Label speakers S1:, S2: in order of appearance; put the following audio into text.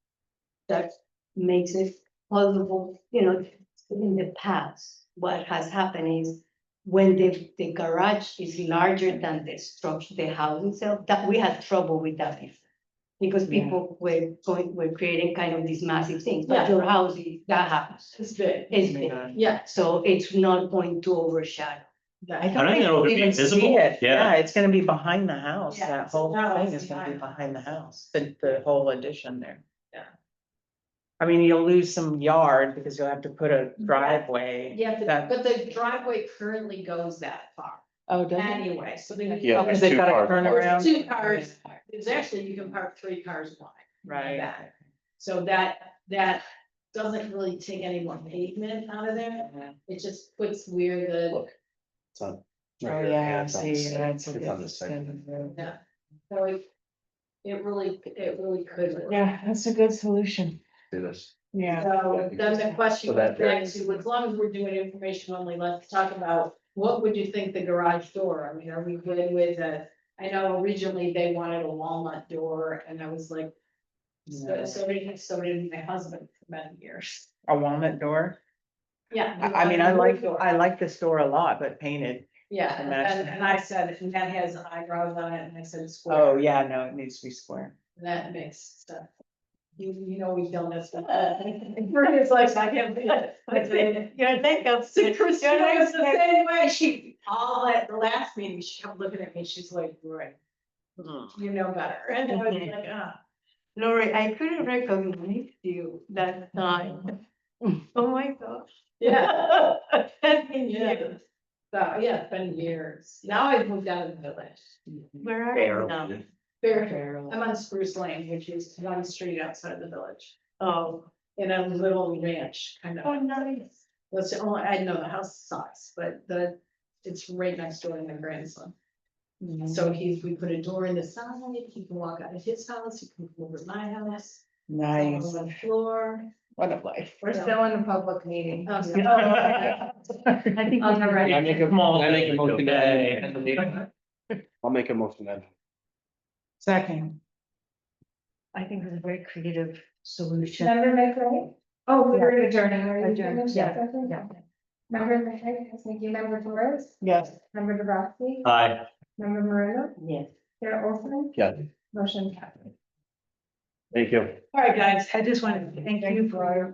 S1: that makes it plausible, you know, in the past, what has happened is when the, the garage is larger than the structure, the house itself, that we had trouble with that before. Because
S2: Yeah.
S1: people were going, were creating kind of these massive things,
S3: Yeah.
S1: but your house, is that happens.
S3: It's big,
S1: It's
S2: my
S1: big.
S2: God.
S3: yeah.
S1: so it's not going to overshadow.
S2: I
S4: I don't
S2: don't think
S4: know
S2: we'll
S4: if it'd be
S2: even see
S4: visible.
S2: it.
S4: Yeah.
S2: Yeah, it's gonna be behind the house.
S3: Yeah,
S2: That
S3: it's a
S2: whole
S3: house
S2: thing is gonna be
S3: behind
S2: behind
S3: the
S2: the house, the, the whole addition there.
S3: Yeah.
S2: I mean, you'll lose some yard because you'll have to put a driveway.
S3: Yeah, but-
S2: That-
S3: but the driveway currently goes that far
S2: Oh, does it?
S3: anyway, so then. you-
S4: Yeah,
S2: Because
S4: there's
S2: they've
S4: two
S2: got a
S4: cars.
S2: turnaround.
S3: There's Two cars, there's actually, you can park three cars wide.
S2: Right.
S3: back. So that, that doesn't really take any more pavement out of there,
S2: Yeah.
S3: it just puts uh, where the,
S5: It's on. right
S2: Oh,
S5: here.
S2: yeah, I
S5: it's on
S2: see.
S5: this side.
S2: that's a
S5: It's on this side.
S2: good-
S3: Yeah. so it. It really, it really could. work.
S2: Yeah, that's a good solution.
S5: Do this.
S2: Yeah.
S3: So then the question
S5: So that-
S3: goes back to, as long as we're doing information only, let's talk about, what would you think the garage door, I mean, are we good with a? I know originally they wanted a walnut door, and I was like, so,
S2: Yeah.
S3: so did, so did my husband for many years.
S2: A walnut door.
S3: Yeah. we
S2: I, I mean, I
S3: wanted a
S2: like,
S3: door.
S2: I like this door a lot, but painted.
S3: Yeah,
S2: And
S3: and,
S2: that's-
S3: and and I said, and that has eyebrows on it, and I said
S2: Oh,
S3: square, and
S2: yeah, no, it needs to be square.
S3: that makes stuff. You, you know, we've done this stuff. Brittany's like, I can't do it. I said,
S1: Your makeup.
S3: So Christina was the same way, she, all at the last meeting, she kept looking at me, she's like, right,
S1: Hmm.
S3: you know better, and I was like, ah.
S1: Lori, I couldn't recognize you that time. Oh my gosh.
S3: Yeah.
S1: That's been
S3: Yeah.
S1: years.
S3: So, yeah, it's been years, now I've moved out of the village,
S1: Where are you now?
S2: um,
S3: Fair- I'm on Spruce Lane, which is one street outside of the village,
S1: Oh,
S3: in a little ranch, kind of.
S1: oh, nice.
S3: That's the only, I know the house sucks, but the, it's right next door to my grandson. So he's, we put a door in the side, he can walk out of his house, he can come over to my house.
S2: Nice.
S3: On the floor.
S2: What a life.
S3: We're
S1: still in a public meeting.
S3: Oh, so-
S1: I think.
S3: On the
S1: we-
S3: right.
S4: I make a
S5: I make a motion that-
S4: motion.
S5: I'll make a motion then.
S2: Second.
S1: I think it's a very creative solution.
S6: Member McRae,
S3: Oh, we were,
S6: member adjourning, are you
S1: Adjourn,
S6: doing
S1: yeah,
S6: that?
S1: yeah.
S6: Member McRae, yes, thank you, member Torres,
S2: Yes.
S6: member Dubrasky,
S4: Hi.
S6: member Moreno,
S1: Yes.
S6: Chair Olson,
S5: Yeah,
S6: motion carried.
S5: thank you.
S3: all right, guys, I just wanted to thank you for